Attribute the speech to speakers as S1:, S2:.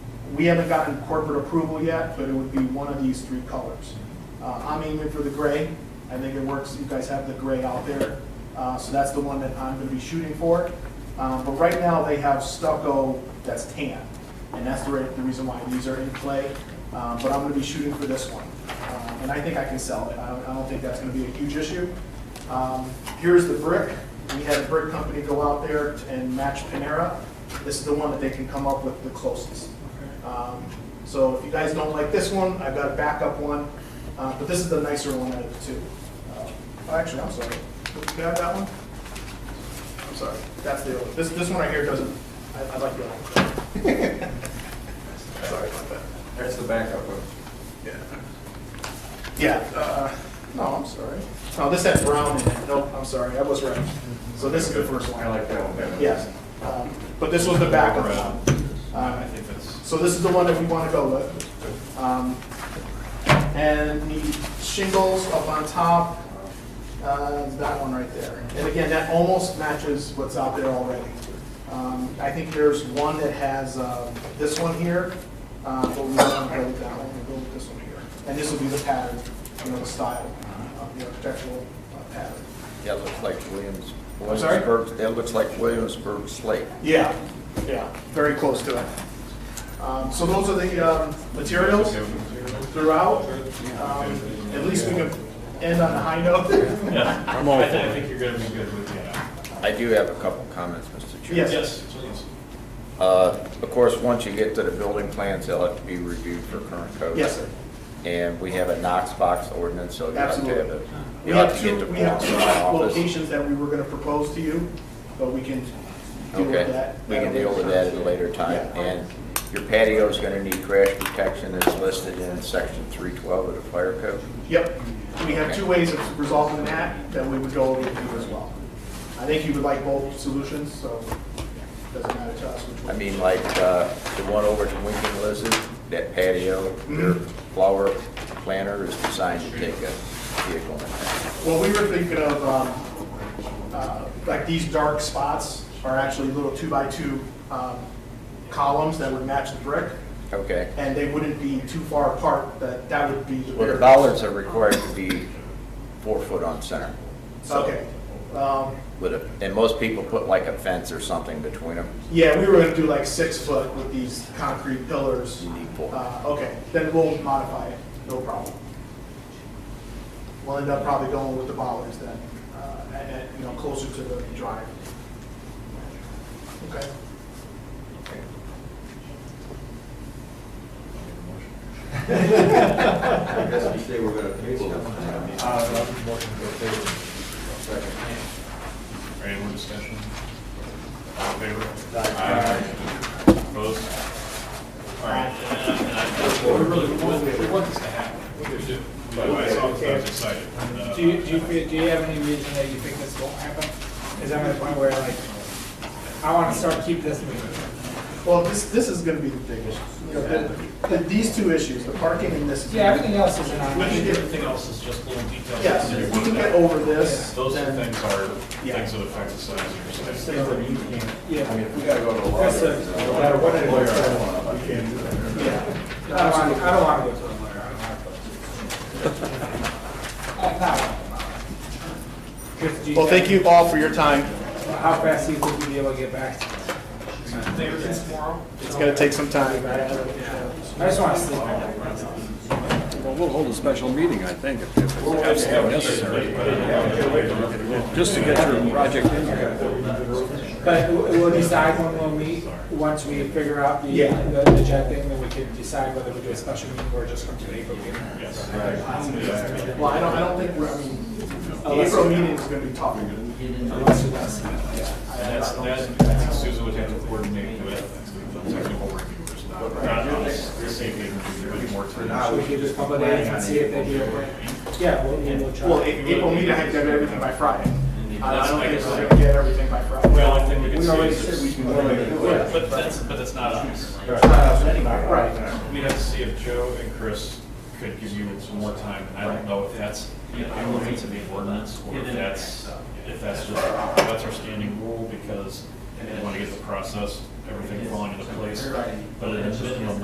S1: We haven't gotten corporate approval yet, but it would be one of these three colors. Uh, I'm aiming for the gray. I think it works. You guys have the gray out there. Uh, So that's the one that I'm going to be shooting for. Um, But right now, they have stucco that's tan, and that's the re- the reason why these are in play. Um, But I'm going to be shooting for this one. Um, And I think I can sell it. I don't- I don't think that's going to be a huge issue. Um, Here's the brick. We had a brick company go out there and match Panera. This is the one that they can come up with the closest. Um, So if you guys don't like this one, I've got a backup one, uh, but this is the nicer one out of the two. Uh, oh, Actually, I'm sorry. Can I have that one? I'm sorry, that's the, this, this one right here doesn't, I, I like the other one. Sorry about that.
S2: That's the backup one.
S1: Yeah. Yeah, uh, no, I'm sorry. No, this had brown in it. No, I'm sorry, I was right. So this is the first one.
S2: I like that one better.
S1: Yes. Um, But this was the backup one.
S2: I
S1: Uh,
S2: think that's,
S1: So this is the one that we want to go with. Um, And the shingles up on top, uh, is that one right there. And again, that almost matches what's out there already. Um, I think there's one that has um, this one here, uh, but we don't want to go with that one, we'll go with this one here. And this will be the pattern, you know, the style of the architectural uh, pattern.
S3: That looks like Williams,
S1: I'm sorry?
S3: Williamsburg, that looks like Williamsburg slate.
S1: Yeah, yeah, very close to it. Um, So those are the um, materials throughout. Um, At least we can end on a high note.
S4: Yeah, I
S3: all
S4: thi- I think you're gonna be good with the,
S3: I do have a couple comments, Mr. Chair.
S1: Yes.
S4: yes, please.
S3: Uh, Of course, once you get to the building plans, they'll have to be reviewed for current code.
S1: Yes, sir.
S3: And we have a Knox box ordinance, so you have to have
S1: Absolutely.
S3: it.
S1: We
S3: You have
S1: have
S3: to get
S1: two,
S3: the
S1: we have
S3: balls
S1: two
S3: in my office.
S1: locations that we were gonna propose to you, but we can deal with
S3: Okay,
S1: that.
S3: we can deal with that at a later time.
S1: Yeah.
S3: And your patio's gonna need crash protection that's listed in section three twelve of the fire code.
S1: Yep, we have two ways of resolving that, that we would go over with you as well. I think you would like both solutions, so it doesn't matter to us which
S3: I
S1: one.
S3: mean, like, uh, the one over to Winking Lizard, that patio, their flower planter is designed to take a vehicle. in.
S1: Well, we were thinking of, um, uh, like these dark spots are actually little two-by-two um, columns that would match the brick,
S3: Okay.
S1: and they wouldn't be too far apart, that, that would be the
S3: Well, the
S1: barrier.
S3: bollards are required to be four foot on center. So,
S1: Okay. Um,
S3: With a, and most people put like a fence or something between them.
S1: Yeah, we were gonna do like six foot with these concrete pillars.
S3: You need four.
S1: Uh, Okay, then we'll modify it, no problem. We'll end up probably going with the bollards then, uh, and, and, you know, closer to the drive. Okay,
S2: I guess we say we're gonna table it.
S4: Any more discussion? All in favor? Aye. Opposed? All right, and I- and I, we really, we want, we want this to happen, we do. By the way, I saw, I was excited. Uh,
S5: Do you, do you, feel- do you have any reason that you think this won't happen? Is I'm at a point where like, I wanna start keep this moving.
S1: well, this, this is gonna be the big issue. You know, the- the- These two issues, the parking and this is.
S5: Yeah, everything else is an
S4: I think
S5: option.
S4: everything else is just little details.
S1: Yes,
S4: that you
S1: if we
S4: want
S1: can
S4: to
S1: get
S4: know.
S1: over this,
S4: Those two
S1: then,
S4: things are
S1: Yeah.
S4: things that affect the size of your site.
S2: I mean,
S5: Yeah.
S2: if we gotta go to a lawyer,
S5: That's a-
S2: no matter what it is, we can't do that.
S1: yeah.
S5: I don't wanna, I don't wanna go to a lawyer, I don't wanna go to. Uh, not one. Just do
S1: Well, thank you all for your time.
S5: How fast do you think you'll be able to get back to this?
S1: It's gonna take some time.
S5: I just wanna sleep. All
S6: Well, we'll hold a special meeting, I think, if if it's necessary, just to get your project in here.
S5: But w- we'll decide when we'll meet, once we figure out the,
S1: Yeah.
S5: the the jet thing, then we can decide whether we do a special meeting or just come to the April meeting.
S4: Yes.
S1: Well, I don't, I don't think, we're. I mean, the April meeting is gonna be tough.
S5: Unless we ask.
S4: And that's, that's, I think Susan would have to coordinate with technical reviewers, not, not us, the safety review, but more to
S5: Should we give it a couple of days and see if they do it? Yeah, we'll, we'll try.
S1: Well, A- April meeting, I have to have everything by Friday. I I don't think we're gonna get everything by Friday.
S4: Well, I think we can
S5: We
S4: see.
S5: already
S4: if
S5: said
S4: it's-
S5: we can.
S4: But that's, but that's not us.
S1: Right.
S4: We have to see if Joe and Chris could give you some more time, and I don't know if that's, I will need to be ordinance, or if that's, if that's just, that's our standing rule, because we want to get the process, everything falling into place, but at a minimum,